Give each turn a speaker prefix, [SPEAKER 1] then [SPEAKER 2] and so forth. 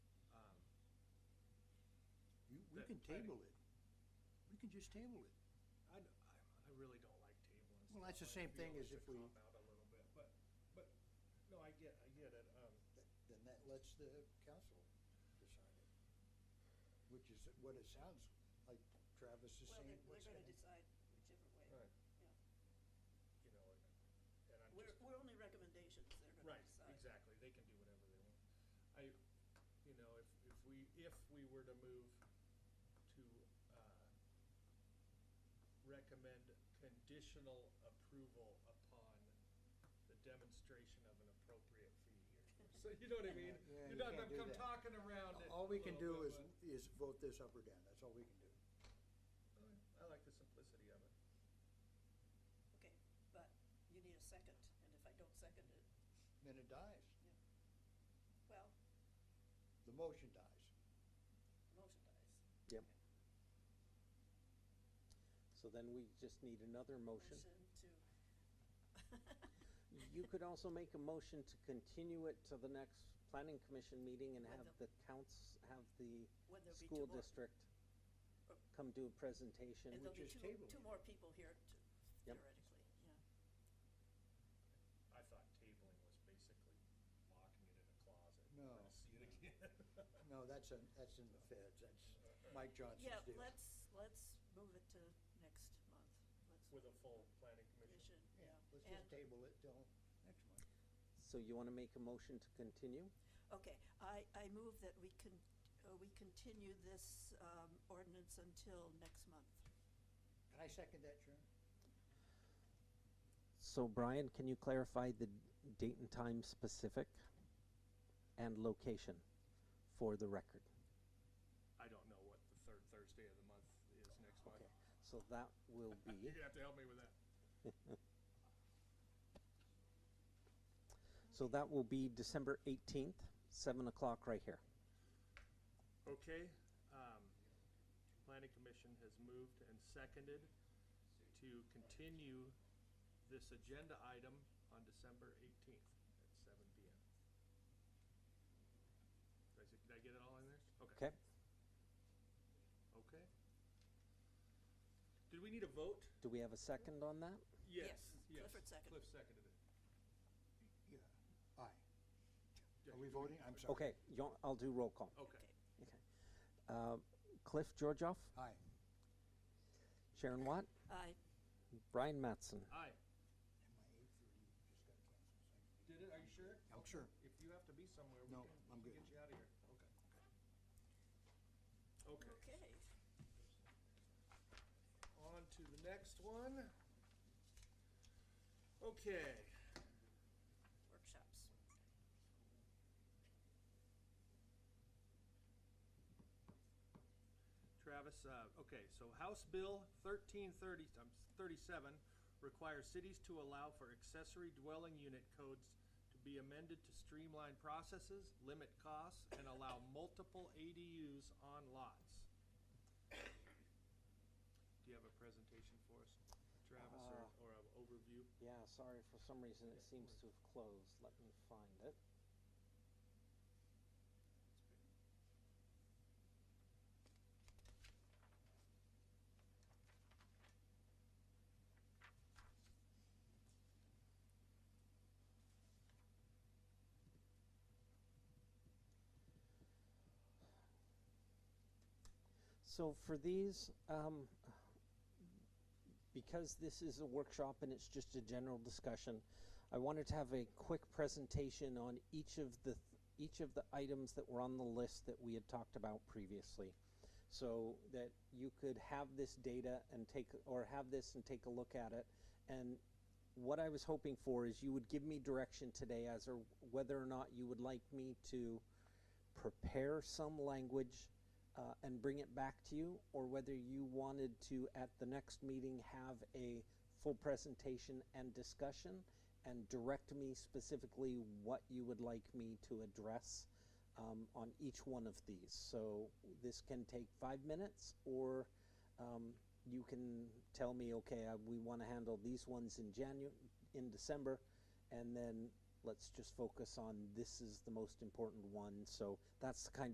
[SPEAKER 1] Um,
[SPEAKER 2] We
[SPEAKER 1] that
[SPEAKER 2] can
[SPEAKER 1] planning-
[SPEAKER 2] table it. We can just table it.
[SPEAKER 1] I, d- I- I really don't like tabling.
[SPEAKER 2] Well, that's
[SPEAKER 1] stuff.
[SPEAKER 2] the
[SPEAKER 1] I
[SPEAKER 2] same
[SPEAKER 1] feel
[SPEAKER 2] thing
[SPEAKER 1] it's a
[SPEAKER 2] as if we-
[SPEAKER 1] cop-out a little bit, but, but, no, I get, I get it, um,
[SPEAKER 2] Then that lets the council decide it, which is what it sounds like Travis is
[SPEAKER 3] Well,
[SPEAKER 2] saying.
[SPEAKER 3] they're,
[SPEAKER 2] what's
[SPEAKER 3] they're gonna
[SPEAKER 2] happening.
[SPEAKER 3] decide whichever way.
[SPEAKER 1] Right. you know, and, and I'm
[SPEAKER 3] We're,
[SPEAKER 1] just.
[SPEAKER 3] we're only recommendations, they're gonna
[SPEAKER 1] Right,
[SPEAKER 3] decide.
[SPEAKER 1] exactly, they can do whatever they want. I, you know, if, if we, if we were to move to, uh, recommend conditional approval upon the demonstration of an appropriate fee here. So you know what I mean? You're
[SPEAKER 2] Yeah, you
[SPEAKER 1] not,
[SPEAKER 2] can't
[SPEAKER 1] I'm
[SPEAKER 2] do
[SPEAKER 1] come
[SPEAKER 2] that.
[SPEAKER 1] talking around it.
[SPEAKER 2] All we
[SPEAKER 1] a
[SPEAKER 2] can
[SPEAKER 1] little bit,
[SPEAKER 2] do is,
[SPEAKER 1] but-
[SPEAKER 2] is vote this up or down, that's all we can do.
[SPEAKER 1] I like the simplicity of it.
[SPEAKER 3] Okay, but you need a second, and if I don't second it,
[SPEAKER 2] Then it dies,
[SPEAKER 3] well,
[SPEAKER 2] the motion dies.
[SPEAKER 3] the motion dies.
[SPEAKER 4] So then we just need another motion.
[SPEAKER 3] to.
[SPEAKER 4] You could also make a motion to continue it to the next planning commission meeting and
[SPEAKER 3] With
[SPEAKER 4] have the counts, have the
[SPEAKER 3] When there'll be two
[SPEAKER 4] school
[SPEAKER 3] more,
[SPEAKER 4] district come do a presentation.
[SPEAKER 3] and there'll be
[SPEAKER 2] just
[SPEAKER 3] two,
[SPEAKER 2] table
[SPEAKER 3] two
[SPEAKER 2] it.
[SPEAKER 3] more people here to-
[SPEAKER 4] Yep.
[SPEAKER 3] theoretically, yeah.
[SPEAKER 1] I thought tabling was basically locking it in a closet.
[SPEAKER 2] No,
[SPEAKER 1] We're gonna see it again.
[SPEAKER 2] No, that's, in- that's in the feds, that's Mike Johnson's
[SPEAKER 3] Yeah,
[SPEAKER 2] deal.
[SPEAKER 3] let's, let's move it to next month, let's,
[SPEAKER 1] With a full planning
[SPEAKER 3] we
[SPEAKER 1] commission.
[SPEAKER 3] should,
[SPEAKER 2] Yeah,
[SPEAKER 3] yeah.
[SPEAKER 2] let's
[SPEAKER 3] And-
[SPEAKER 2] just table it till next month.
[SPEAKER 4] So you wanna make a motion to continue?
[SPEAKER 3] Okay, I, I move that we can, uh, we continue this, um, ordinance until next month.
[SPEAKER 2] Can I second that, Sharon?
[SPEAKER 4] So Brian, can you clarify the date and time specific and location for the record?
[SPEAKER 1] I don't know what the third Thursday of the month is next month.
[SPEAKER 4] Okay, so that will be,
[SPEAKER 1] You're gonna have to help me with that.
[SPEAKER 4] so that will be December eighteenth, seven o'clock right here.
[SPEAKER 1] Okay, um, planning commission has moved and seconded to continue this agenda item on December eighteenth at seven P M. Did I s- did I get it all in there? Okay.
[SPEAKER 4] Okay.
[SPEAKER 1] Okay. Did we need a vote?
[SPEAKER 4] Do we have a second on that?
[SPEAKER 1] Yes.
[SPEAKER 3] Clifford seconded.
[SPEAKER 1] Cliff seconded it.
[SPEAKER 2] Yeah, aye.
[SPEAKER 1] Yeah,
[SPEAKER 2] Are we
[SPEAKER 1] you-
[SPEAKER 2] voting? I'm sorry.
[SPEAKER 4] Okay, you, want- I'll do roll call.
[SPEAKER 1] Okay.
[SPEAKER 4] Uh, Cliff Georgioff,
[SPEAKER 2] Aye.
[SPEAKER 4] Sharon Watt,
[SPEAKER 3] Aye,
[SPEAKER 4] Brian Matson.
[SPEAKER 1] Aye.
[SPEAKER 2] And my eight thirty just got canceled.
[SPEAKER 1] Did it, are you sure?
[SPEAKER 2] I'm sure.
[SPEAKER 1] If you have to be somewhere, we
[SPEAKER 2] No,
[SPEAKER 1] can
[SPEAKER 2] I'm
[SPEAKER 1] we can
[SPEAKER 2] good.
[SPEAKER 1] get you out of here. Okay. Okay,
[SPEAKER 3] okay.
[SPEAKER 1] on to the next one. Okay,
[SPEAKER 3] Workshops.
[SPEAKER 1] Travis, uh, okay, so House Bill thirteen thirty, um, thirty-seven requires cities to allow for accessory dwelling unit codes to be amended to streamline processes, limit costs, and allow multiple ADUs on lots. Do you have a presentation for us, Travis, or, or an overview?
[SPEAKER 4] Yeah, sorry, for some reason it seems to have closed. Let me find it. So for these, um, because this is a workshop and it's just a general discussion, I wanted to have a quick presentation on each of the, th- each of the items that were on the list that we had talked about previously. So that you could have this data and take, or have this and take a look at it. And what I was hoping for is you would give me direction today as or whether or not you would like me to prepare some language uh, and bring it back to you, or whether you wanted to, at the next meeting, have a full presentation and discussion and direct me specifically what you would like me to address um, on each one of these. So this can take five minutes, or um, you can tell me, okay, I, we want to handle these ones in Janu- in December, and then let's just focus on this is the most important one. So that's the kind